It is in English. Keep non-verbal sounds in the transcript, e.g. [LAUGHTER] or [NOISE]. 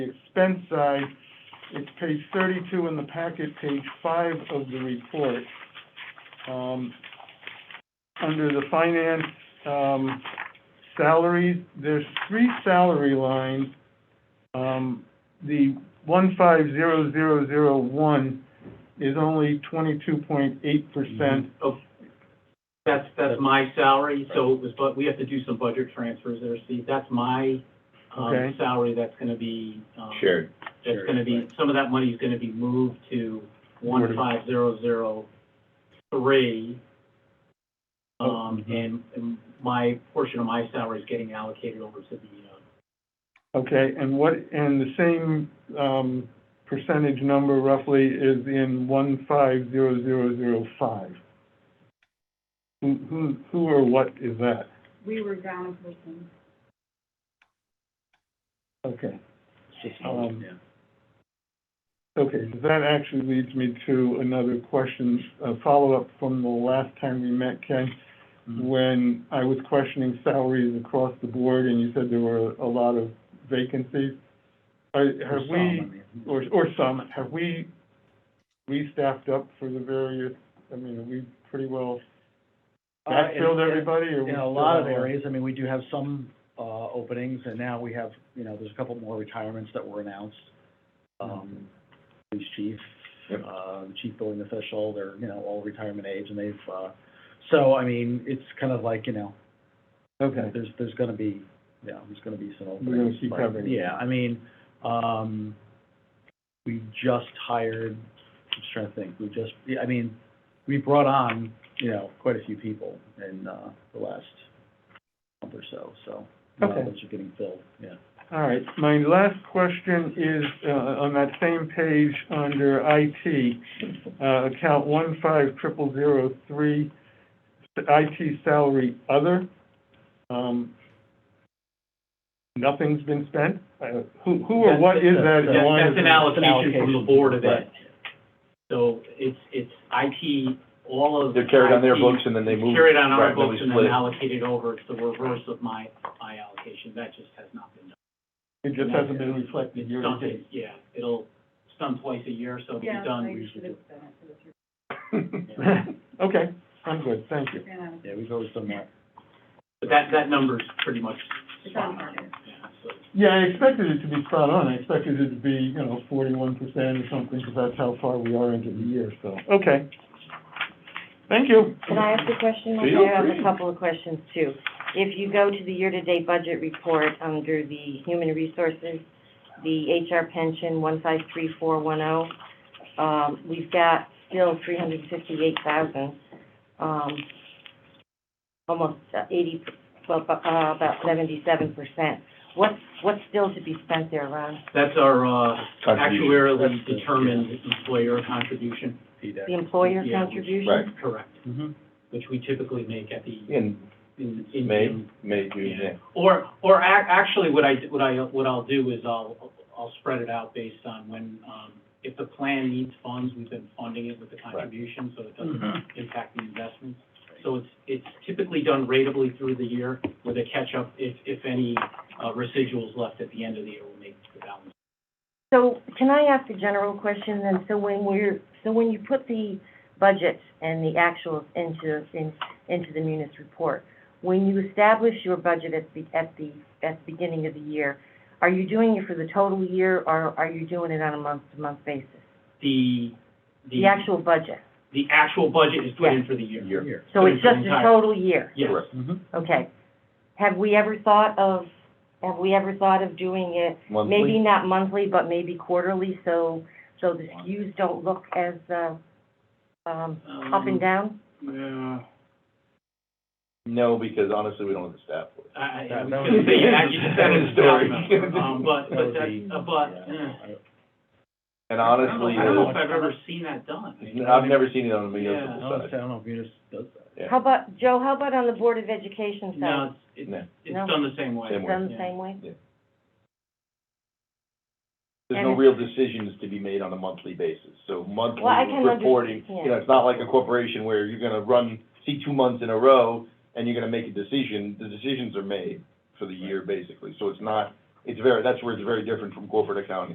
the expense side, it's page thirty-two in the packet, page five of the report. Um, under the finance, um, salaries, there's three salary lines. Um, the one five zero zero zero one is only twenty-two point eight percent Oh, that's, that's my salary, so it was, but we have to do some budget transfers there, Steve. That's my, um, Okay. salary that's gonna be, um. Shared. That's Shared, gonna be, right. some of that money is gonna be moved to one five zero zero three. Oh, Um, mm-hmm. and, and my portion of my salary is getting allocated over to the, uh, Okay, and what, and the same, um, percentage number roughly is in one five zero zero zero five. Who, who, who or what is that? We were down a person. Okay, Um, okay, so that actually leads me to another question, a follow-up from the last time we met, Ken, when I was questioning salaries across the board and you said there were a lot of vacancies. Are, Mm-hmm. have we? or, or some, have we restaffed up for the various, I mean, have we pretty well Uh, in- backfilled in- everybody, or? we In a still lot of have areas, I mean, we do have some, uh, openings, and now we have, you know, there's a couple more retirements that were announced. Um, police chief, Yep. uh, the chief building official, they're, you know, all retirement age, and they've, uh, so, I mean, it's kind of like, you know, Okay, there's, there's gonna be, yeah, there's gonna be some openings. gonna keep but- covering. Yeah, I mean, um, we just hired, I'm just trying to think, we just, yeah, I mean, we brought on, you know, quite a few people in, uh, the last month or so, so. a lot of Okay. those are getting filled, yeah. all right, my last question is, uh, on that same page under IT, uh, account one five triple zero three, IT salary other, um, nothing's been spent? Uh, Who, who or That's- what is that? That- line That's an item? allocation from the board of Right. that. So it's, it's IT, all of. They're carried on their IT books and then they move. E Carried on our right, then we books and split then it. allocated over. It's the reverse of my, my allocation. That just has not been done. It just hasn't been reflected year to Done date. it, Yeah, it'll, it's done twice a year, so it'll be done. Yeah, I should have done it for this year. [LAUGHS] Okay, I'm good, thank you. Ran out of- Yeah, we've always done that. But that, that number's pretty much It's spot on on. target. Yeah, so Yeah, I expected it to be spot on, I expected it to be, you know, forty-one percent or something, because that's how far we are into the year, so, okay. Thank you. Can I ask a question? Feel I have free. a couple of questions too. If you go to the year-to-date budget report under the human resources, the HR pension one five three four one oh, um, we've got still three hundred and fifty-eight thousand, um, almost uh, eighty, well, bu- uh, about seventy-seven percent. What's, what's still to be spent there, Ron? That's our, uh, Contribution. actuarially That's the- determined employer contribution. The employer Yeah, which- contribution? Right. Correct, Mm-hmm. which we typically make at the, In in, in. May, May, June, Yeah. yeah. Or, or ac- actually, what I, what I, what I'll do is I'll, I'll spread it out based on when, um, if the plan needs funds, we've been funding it with the contribution, so it doesn't impact the investments. So it's, it's typically done ratably through the year with a catch-up, if, if any uh, residuals left at the end of the year will make the balance. So can I ask a general question then? So when we're, so when you put the budgets and the actuals into, in- into the munis report, when you establish your budget at the, at the, at the beginning of the year, are you doing it for the total year or are you doing it on a month-to-month basis? The, the, The actual budget? the actual budget is put in Yeah. for the year. Year. So it's For the just the entire- total year? Yes. Correct. Mm-hmm. Okay. Have we ever thought of, have we ever thought of doing it maybe Monthly, not monthly, but maybe quarterly, so, so the skews don't look as, uh, um, up and down? Yeah. no, because honestly, we don't have the staff for it. I, I, I That- that was gonna was- [LAUGHS] say, yeah, you just said [LAUGHS] it's Story. down, um, [LAUGHS] but, but that, uh, but, eh. And I don't honestly, know- I don't know if the- I've ever seen that done. I've never seen it on a Yeah. I municipal don't side. know if Munis does that. Yeah. How about, Joe, how about on the Board of Education side? No, it's, No. it's, it's No. done the same way. Same way. Done the yeah. same way? There's no And- real decisions to be made on a monthly basis, so monthly Well, I can under- reporting, yeah. you know, it's not like a corporation where you're gonna run, see two months in a row, and you're gonna make a decision, the decisions are made for the year, basically, so it's not it's very, that's where it's very different from corporate accounting.